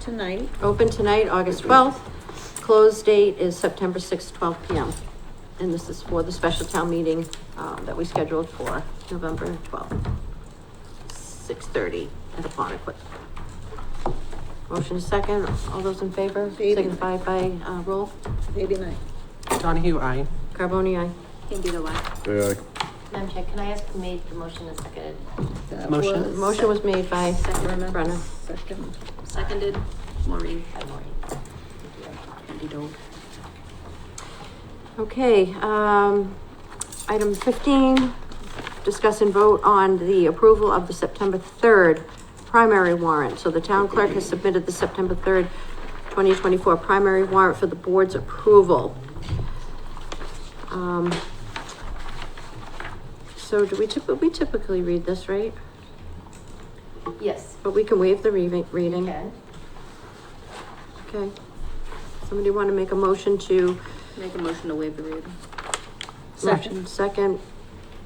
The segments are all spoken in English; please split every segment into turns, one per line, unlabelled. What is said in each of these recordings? tonight.
Open tonight, August twelfth. Close date is September sixth, twelve P M. And this is for the special town meeting, um, that we scheduled for November twelfth. Six thirty at Aponequid. Motion is second, all those in favor,
Baby.
signify by, uh, roll.
Maybe not.
Donahue, aye.
Carboni, aye.
Can be the one.
Day
Madam Chair, can I ask who made the motion and seconded?
That
Motion.
was-
Motion was made by
Brenna.
Brenna.
Second.
Seconded, Maureen.
By Maureen.
Andy Dole.
Okay, um, item fifteen, discuss and vote on the approval of the September third primary warrant. So the town clerk has submitted the September third, twenty twenty-four primary warrant for the board's approval. Um, so do we typically, we typically read this, right?
Yes.
But we can waive the reading, reading.
Ken?
Okay. Somebody want to make a motion to
Make a motion to waive the reading.
Motion second.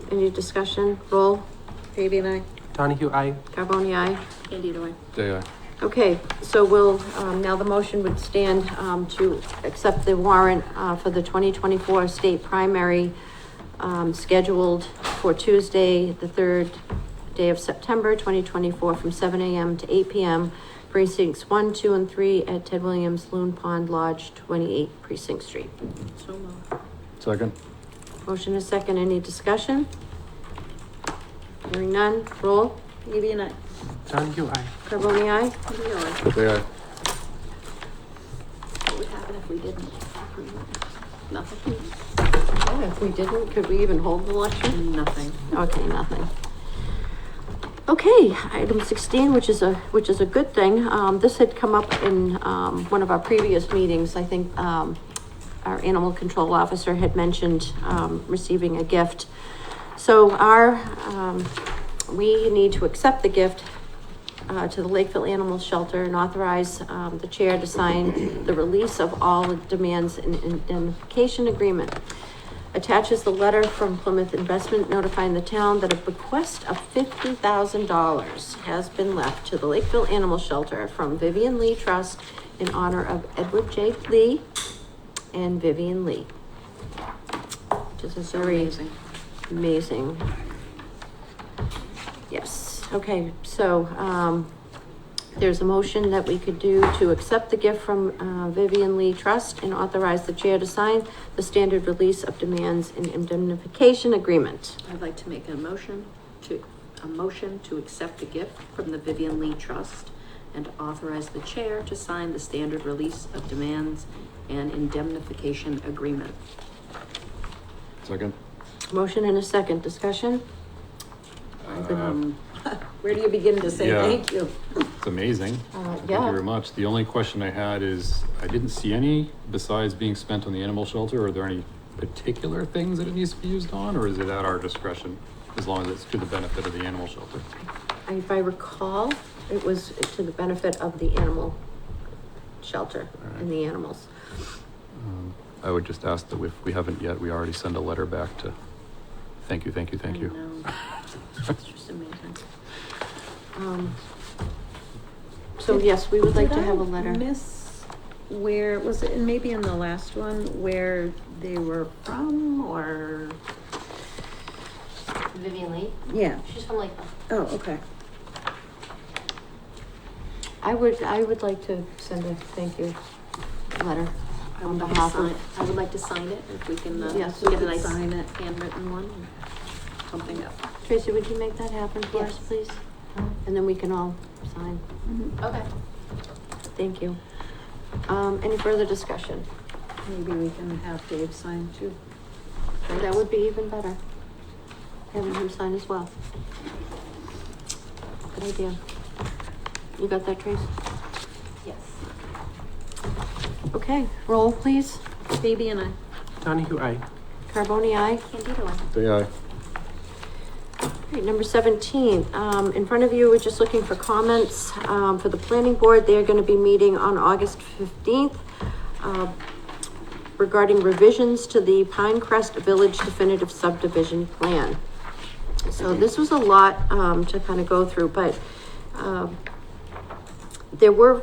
Any discussion? Roll.
Baby and I.
Donahue, aye.
Carboni, aye.
Andy Dole.
aye.
Okay, so we'll, um, now the motion would stand, um, to accept the warrant, uh, for the twenty twenty-four state primary, um, scheduled for Tuesday, the third day of September, twenty twenty-four, from seven AM to eight PM, precincts one, two, and three at Ted Williams Loon Pond Lodge, twenty-eight Precinct Street.
So moved.
Second?
Motion is second. Any discussion? Hearing none. Roll.
Baby and I.
Donahue, aye.
Carboni, aye?
Andy Dole.
Day aye.
What would happen if we didn't approve it? Nothing.
Oh, If we didn't, could we even hold the election?
Nothing.
Okay, nothing. Okay, item sixteen, which is a, which is a good thing, um, this had come up in, um, one of our previous meetings, I think, um, our animal control officer had mentioned, um, receiving a gift. So our, um, we need to accept the gift, uh, to the Lakeville Animal Shelter and authorize, um, the chair to sign the release of all demands and indemnification agreement attaches the letter from Plymouth Investment notifying the town that a bequest of fifty thousand dollars has been left to the Lakeville Animal Shelter from Vivian Lee Trust in honor of Edward J. Lee and Vivian Lee. Just a
So
very
amazing.
amazing. Yes, okay, so, um, there's a motion that we could do to accept the gift from, uh, Vivian Lee Trust and authorize the chair to sign the standard release of demands and indemnification agreement.
I'd like to make a motion to, a motion to accept the gift from the Vivian Lee Trust and authorize the chair to sign the standard release of demands and indemnification agreement.
Second?
Motion and a second discussion?
Um,
Where do you begin to say
Yeah.
thank you?
It's amazing.
Uh,
Thank you
yeah,
very much. The only question I had is, I didn't see any besides being spent on the animal shelter. Are there any particular things that it needs to be used on, or is it at our discretion? As long as it's to the benefit of the animal shelter.
if I recall, it was to the benefit of the animal shelter and the animals.
Um, I would just ask that if we haven't yet, we already send a letter back to, thank you, thank you, thank
I
you.
know. It's just amazing.
Um, So yes, we would like to
Did I
have a letter.
Miss where, was it, and maybe in the last one, where they were from or,
Vivian Lee?
yeah,
She's from Lakeville.
oh, okay.
I would, I would like to send a thank you letter
I
on
would like to
behalf
sign,
of.
I would like to sign it if we can, uh,
Yes,
get
we
a
could
nice
sign it.
handwritten one, or something up.
Tracy, would you make that happen for us,
Yes.
please? And then we can all sign.
Mm-hmm.
Okay.
Thank you. Um, any further discussion?
Maybe we can have Dave sign too.
That would be even better. Having him sign as well. Good idea. You got that, Trace?
Yes.
Okay, roll, please.
Baby and I.
Donahue, aye.
Carboni, aye?
Candida one.
Day aye.
All right, number seventeen, um, in front of you, we're just looking for comments, um, for the planning board. They are gonna be meeting on August fifteenth, uh, regarding revisions to the Pinecrest Village definitive subdivision plan. So this was a lot, um, to kind of go through, but, um, there were